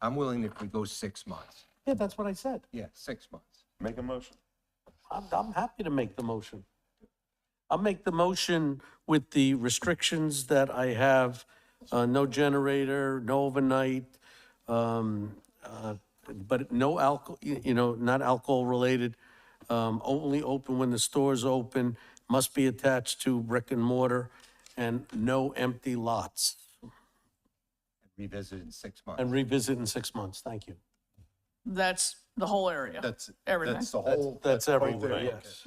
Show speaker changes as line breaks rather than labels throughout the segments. I'm willing if we go six months.
Yeah, that's what I said.
Yeah, six months.
Make a motion.
I'm, I'm happy to make the motion. I'll make the motion with the restrictions that I have, uh, no generator, no overnight, um, uh, but no alcohol, you know, not alcohol-related, um, only open when the store's open, must be attached to brick and mortar, and no empty lots.
Revisit in six months.
And revisit in six months, thank you.
That's the whole area.
That's,
Everything.
that's the whole.
That's
right
everywhere,
there.
yes.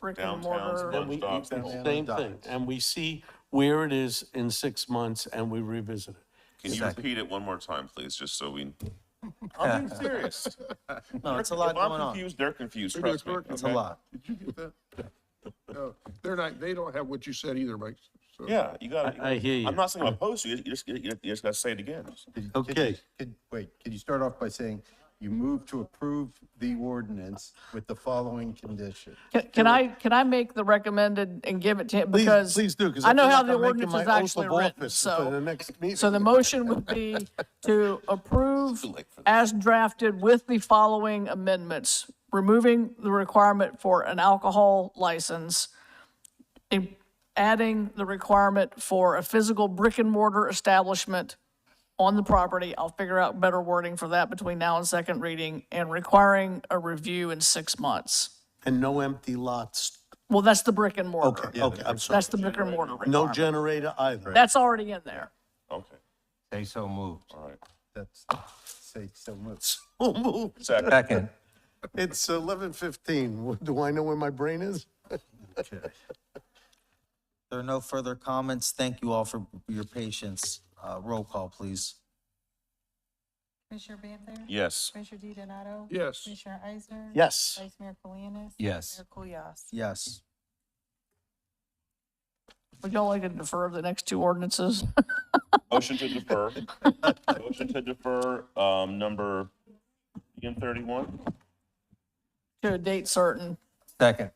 Brick and
Downtown's
mortar.
And we,
Stop.
same thing, and we see where it is in six months and we revisit it.
Can you repeat it one more time, please, just so we? I'm being serious.
No, it's a lot
If I'm
going on.
confused, they're confused, trust me.
It's a
okay?
lot.
Did you get that? No, they're not, they don't have what you said either, Mike. So-
Yeah, you gotta.
I- I hear
I'm
you.
not saying oppose you, you just, you you just gotta say it again.
Okay.
Could- Wait, could you start off by saying you move to approve the ordinance with the following condition?
Can- Can I, can I make the recommended and give it to him?
Please-
Because
please do, 'cause I
I know
feel
how
like
the
I'm making
ordinance
my
is
oath
actually
of
written,
office for the
so.
next meeting.
So the motion would be to approve as drafted with the following amendments. Removing the requirement for an alcohol license. in- Adding the requirement for a physical brick and mortar establishment on the property. I'll figure out better wording for that between now and second reading. And requiring a review in six months.
And no empty lots.
Well, that's the brick and mortar.
Okay, okay, I'm sorry.
That's the brick and mortar.
No
requirement.
generator either.
That's already in there.
Okay,
Say so moved.
all right.
That's, say, so much.
So moved.
Second.
Second.
It's eleven fifteen. Do I know where my brain is?
There are no further comments. Thank you all for your patience. Uh, roll call, please.
Commissioner Banther?
Yes,
Commissioner DiDonato?
Yes.
Commissioner Eisner?
Yes.
Vice Mayor Colianis?
Yes.
Mayor Kulyas?
Yes.
Would y'all like to defer the next two ordinances?
motion to defer. Motion to defer, um, number M thirty-one
To a date certain.
Second.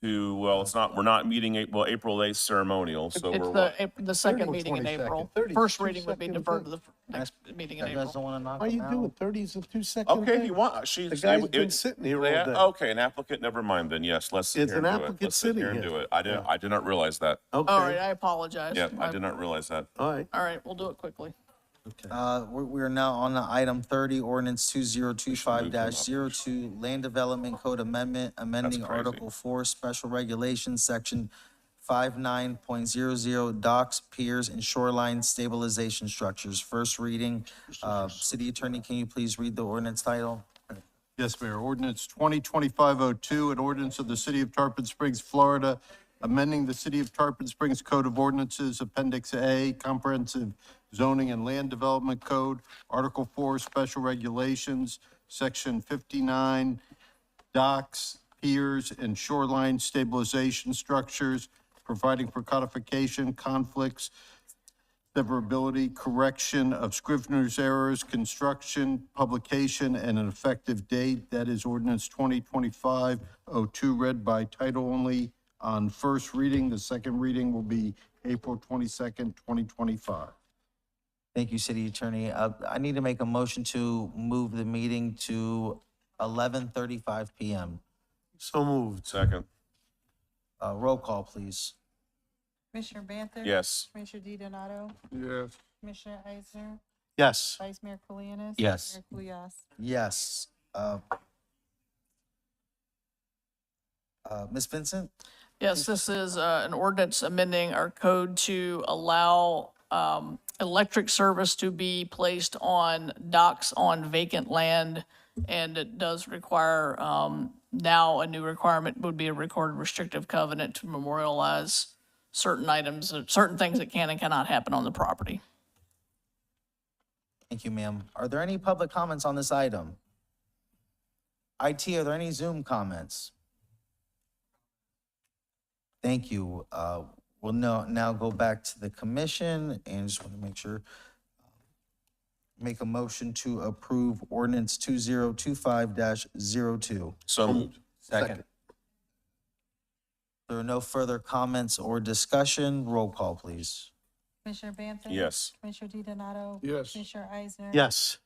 to, well, it's not, we're not meeting, A- well, April eighth ceremonial, so we're
It's
what?
the, Ap- the second meeting in
22nd,
April.
30,
First reading would be
22nd,
deferred to the
thing.
f- next meeting in
You guys don't
April.
want to knock
Why you
them
do
out?
it thirties of two seconds?
Okay, if you want, uh, she's.
The guy's
it-
been
it-
sitting here all
Yeah,
day.
Okay, an applicant, never mind then, yes, let's sit
It's
here and
an
do it.
applicant
Let's sit here
sitting
and
here.
do it. I didn't, I did not realize that.
All right,
Okay,
I apologize.
Yeah, I
I-
did not realize that.
all right.
All right, we'll do it quickly.
Uh, we, we are now on the item thirty, ordinance two zero two five dash zero two, Land Development Code Amendment, amending
crazy.
Article Four, Special Regulations, Section five nine point zero zero, docks, piers, and shoreline stabilization structures. First reading. Uh, City Attorney, can you please read the ordinance title?
Yes, Mayor. Ordinance 2025-02, an ordinance of the City of Tarpon Springs, Florida, amending the City of Tarpon Springs Code of Ordinances, Appendix A, Comprehensive Zoning and Land Development Code, Article 4, Special Regulations, Section 59, docks, piers, and shoreline stabilization structures, providing for codification, conflicts, severability, correction of scrivener's errors, construction, publication, and an effective date. That is ordinance 2025-02, read by title only on first reading. The second reading will be April 22nd, 2025.
Thank you, City Attorney. Uh, I need to make a motion to move the meeting to eleven thirty-five PM.
So moved.
Second,
Uh, roll call, please.
Commissioner Banther?
yes.
Commissioner DiDonato?
Yes.
Commissioner Eisner?
Yes.
Vice Mayor Colianis?
Yes.
Mayor Kulyas?
Yes. Uh, uh, Ms. Vincent?
Yes, this is uh, an ordinance amending our code to allow um, electric service to be placed on docks on vacant land. And it does require, um, now a new requirement would be a recorded restrictive covenant to memorialize certain items, certain things that can and cannot happen on the property.
Thank you, ma'am. Are there any public comments on this item? IT, are there any Zoom comments? Thank you. Uh, We'll now, now go back to the commission and just want to make sure, make a motion to approve ordinance 2025-02.
So
Um,
moved.
Second.
There are no further comments or discussion. Roll call, please.
Commissioner Banther?
Yes.
Commissioner DiDonato?
Yes.
Commissioner Eisner?
Yes.